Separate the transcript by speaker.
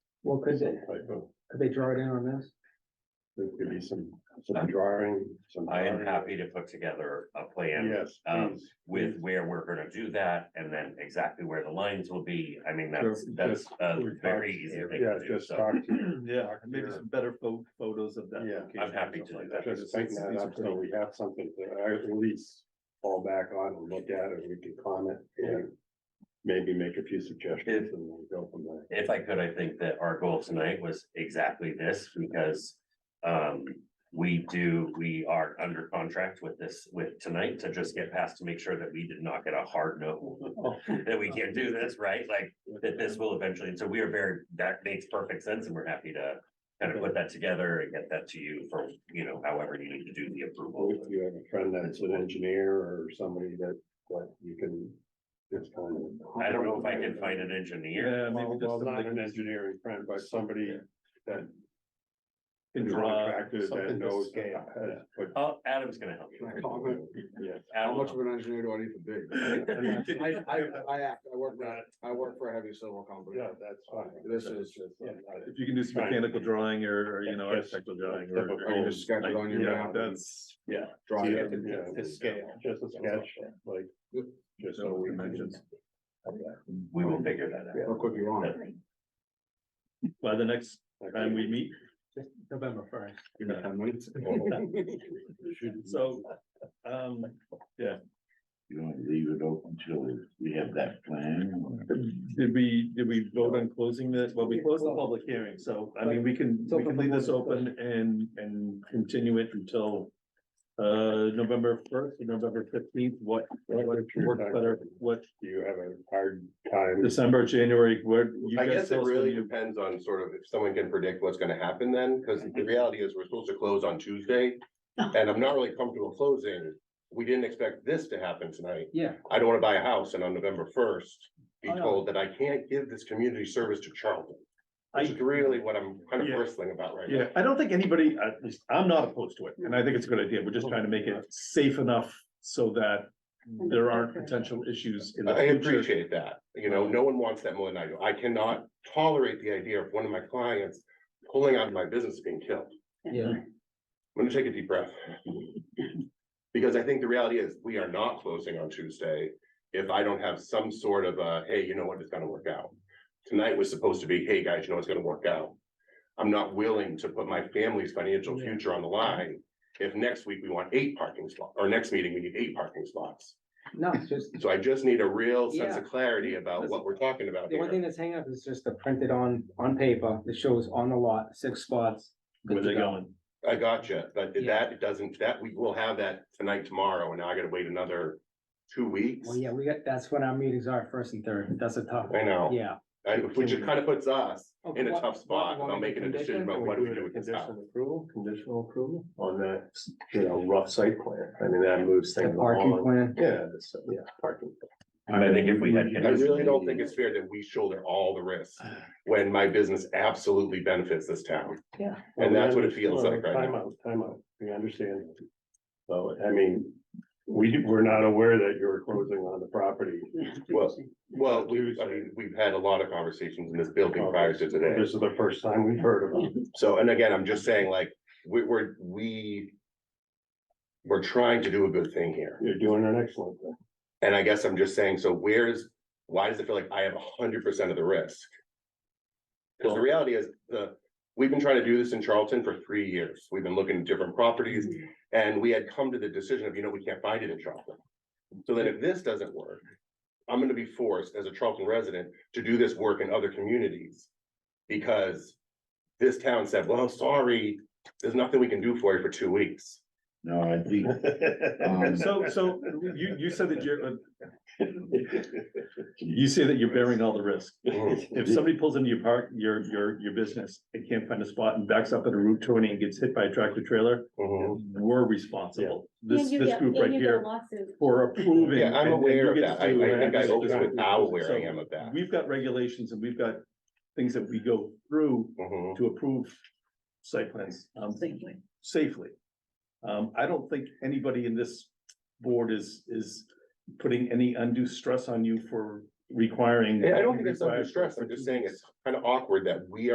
Speaker 1: Well, could they,
Speaker 2: Typo.
Speaker 1: could they draw it in on this?
Speaker 2: There could be some, some drawing, some.
Speaker 3: I am happy to put together a plan
Speaker 2: Yes.
Speaker 3: um,
Speaker 2: please.
Speaker 3: with where we're gonna do that and then exactly where the lines will be. I mean,
Speaker 2: Sure,
Speaker 3: that's, that's
Speaker 2: just-
Speaker 3: a
Speaker 2: we're
Speaker 3: very
Speaker 2: talking-
Speaker 3: easy thing
Speaker 2: Yeah,
Speaker 3: to do.
Speaker 2: just
Speaker 3: So
Speaker 2: talk to,
Speaker 4: Yeah, maybe some better pho- photos of that.
Speaker 2: Yeah, I'm
Speaker 4: location
Speaker 3: I'm
Speaker 4: or
Speaker 3: happy to
Speaker 4: something
Speaker 3: do
Speaker 4: like
Speaker 3: that.
Speaker 2: just
Speaker 4: because
Speaker 2: tighten
Speaker 4: these-
Speaker 2: that
Speaker 4: these are
Speaker 2: up so
Speaker 4: pretty-
Speaker 2: we have something to at least fall back on and look at and we can comment and maybe make a few suggestions and then go from there.
Speaker 3: If I could, I think that our goal tonight was exactly this because um, we do, we are under contract with this, with tonight to just get past to make sure that we did not get a hard no. That we can't do this, right? Like that this will eventually, and so we are very, that makes perfect sense and we're happy to kind of put that together and get that to you for, you know, however you need to do the approval.
Speaker 2: If you have a friend that's an engineer or somebody that, that you can just kind of.
Speaker 3: I don't know if I can find an engineer.
Speaker 4: Yeah, maybe
Speaker 2: Well,
Speaker 4: just
Speaker 2: well, not
Speaker 4: something
Speaker 2: an
Speaker 4: that
Speaker 2: engineering friend, but somebody that
Speaker 4: can draw.
Speaker 2: contractor that
Speaker 4: something
Speaker 2: knows.
Speaker 4: that's-
Speaker 2: has put-
Speaker 3: Oh, Adam's gonna help you.
Speaker 2: Yeah.
Speaker 3: Adam will
Speaker 1: an engineer do I need to be? I, I, I act, I work, for- I work for a heavy civil company.
Speaker 2: Yeah, that's fine.
Speaker 1: This is-
Speaker 2: Yeah.
Speaker 4: If you can do some
Speaker 2: Right.
Speaker 4: mechanical drawing or, or, you know,
Speaker 2: Yes.
Speaker 4: architectural drawing or.
Speaker 2: Typical.
Speaker 4: or
Speaker 2: Or you
Speaker 1: just sketch it on your
Speaker 4: yeah,
Speaker 1: map and-
Speaker 4: That's,
Speaker 2: Yeah.
Speaker 1: Draw
Speaker 2: Yeah,
Speaker 1: it.
Speaker 2: yeah, Just a sketch, like, just so
Speaker 4: No
Speaker 2: we can.
Speaker 4: dimensions.
Speaker 3: We will figure that out.
Speaker 1: How quick you want it.
Speaker 4: by the next time we meet,
Speaker 1: November first.
Speaker 4: you know,
Speaker 2: Should-
Speaker 4: so, um,
Speaker 5: You don't leave it open till we have that plan.
Speaker 4: did we, did we vote on closing this? Well, we closed the public hearing, so, I mean, we can, we can leave this open and, and continue it until uh, November first, November fifteenth, what, what works better, what,
Speaker 2: Do you have a hard time?
Speaker 4: December, January, where? you
Speaker 6: I
Speaker 4: guys
Speaker 6: guess it
Speaker 4: tell us when
Speaker 6: really
Speaker 4: you-
Speaker 6: depends on sort of if someone can predict what's gonna happen then, because the reality is we're supposed to close on Tuesday. And I'm not really comfortable closing. We didn't expect this to happen tonight.
Speaker 1: Yeah.
Speaker 6: I don't wanna buy a house and on November first be
Speaker 4: I know.
Speaker 6: told that I can't give this community service to Charlton. Which
Speaker 4: I-
Speaker 6: is really what I'm kind
Speaker 4: Yeah.
Speaker 6: of bristling about right now.
Speaker 4: Yeah, I don't think anybody, at least I'm not opposed to it, and I think it's a good idea. We're just trying to make it safe enough so that there aren't potential issues in the
Speaker 6: I
Speaker 4: future.
Speaker 6: appreciate that. You know, no one wants that more than I do. I cannot tolerate the idea of one of my clients pulling out of my business being killed.
Speaker 1: Yeah.
Speaker 6: Let me take a deep breath. Because I think the reality is, we are not closing on Tuesday if I don't have some sort of a, hey, you know what, it's gonna work out. Tonight was supposed to be, hey, guys, you know, it's gonna work out. I'm not willing to put my family's financial
Speaker 1: Yeah.
Speaker 6: future on the line. If next week we want eight parking slots, or next meeting we need eight parking spots.
Speaker 1: No, it's just,
Speaker 6: So I just need a real sense
Speaker 1: Yeah.
Speaker 6: of clarity about
Speaker 1: That's-
Speaker 6: what we're talking about
Speaker 1: the one thing
Speaker 6: here.
Speaker 1: that's hanging up is just the printed on, on paper that shows on the lot, six spots. good
Speaker 4: Where
Speaker 1: to
Speaker 4: they're
Speaker 1: go.
Speaker 4: going.
Speaker 6: I gotcha, but
Speaker 1: Yeah.
Speaker 6: that doesn't, that, we will have that tonight, tomorrow, and now I gotta wait another two weeks.
Speaker 1: Well, yeah, we got, that's when our meetings are, first and third. That's a tough,
Speaker 6: I know.
Speaker 1: yeah.
Speaker 6: And which it kind of puts us
Speaker 1: Okay,
Speaker 6: in a
Speaker 1: what-
Speaker 6: tough spot
Speaker 1: what-
Speaker 6: about
Speaker 1: what
Speaker 6: making a
Speaker 1: condition?
Speaker 6: decision about what do we do with this house.
Speaker 2: approval, conditional approval on that, you know, rough site plan. I mean, that moves
Speaker 1: The parking plan.
Speaker 2: Yeah, that's- yeah, parking.
Speaker 3: I think if we had.
Speaker 6: I really don't think it's fair that we shoulder all the risks when my business absolutely benefits this town. And that's what it feels like right
Speaker 2: Time out, time out. We understand. So, I mean, we, we're not aware that you're closing on the property.
Speaker 6: Well, Well, we, I mean, we've had a lot of conversations in this building prior to today.
Speaker 2: This is the first time we've heard of it.
Speaker 6: So, and again, I'm just saying like, we, we're, we we're trying to do a good thing here.
Speaker 2: You're doing an excellent thing.
Speaker 6: And I guess I'm just saying, so where's, why does it feel like I have hundred percent of the risk? Because the reality is, the, we've been trying to do this in Charlton for three years. We've been looking at different properties. And we had come to the decision of, you know, we can't find it in Charlton. So then if this doesn't work, I'm gonna be forced as a Charlton resident to do this work in other communities. Because this town said, well, sorry, there's nothing we can do for you for two weeks.
Speaker 5: No, I think, um,
Speaker 4: So, so you, you said that you're, uh, you say that you're bearing all the risk.
Speaker 6: Mm-hmm.
Speaker 4: If somebody pulls into your park, your, your, your business, and can't find a spot and backs up at a Route twenty and gets hit by a tractor trailer,
Speaker 6: Mhm.
Speaker 4: we're responsible.
Speaker 7: And
Speaker 4: This,
Speaker 7: you
Speaker 4: this
Speaker 7: get-
Speaker 4: group
Speaker 7: and
Speaker 4: right
Speaker 7: you get
Speaker 4: here
Speaker 7: lawsuits.
Speaker 4: for approving.
Speaker 6: Yeah,
Speaker 4: and-
Speaker 6: I'm
Speaker 4: and
Speaker 6: aware of
Speaker 4: you get
Speaker 6: that.
Speaker 4: to
Speaker 6: I,
Speaker 4: do
Speaker 6: I think I
Speaker 4: this-
Speaker 6: opened
Speaker 4: this-
Speaker 6: with how aware I
Speaker 4: so-
Speaker 6: am of that.
Speaker 4: We've got regulations and we've got things that we go through
Speaker 6: Mhm.
Speaker 4: to approve site plans um, safely. Um, I don't think anybody in this board is, is putting any undue stress on you for requiring.
Speaker 6: Yeah, I don't think it's under
Speaker 4: required-
Speaker 6: stress. I'm just saying it's kind of awkward that we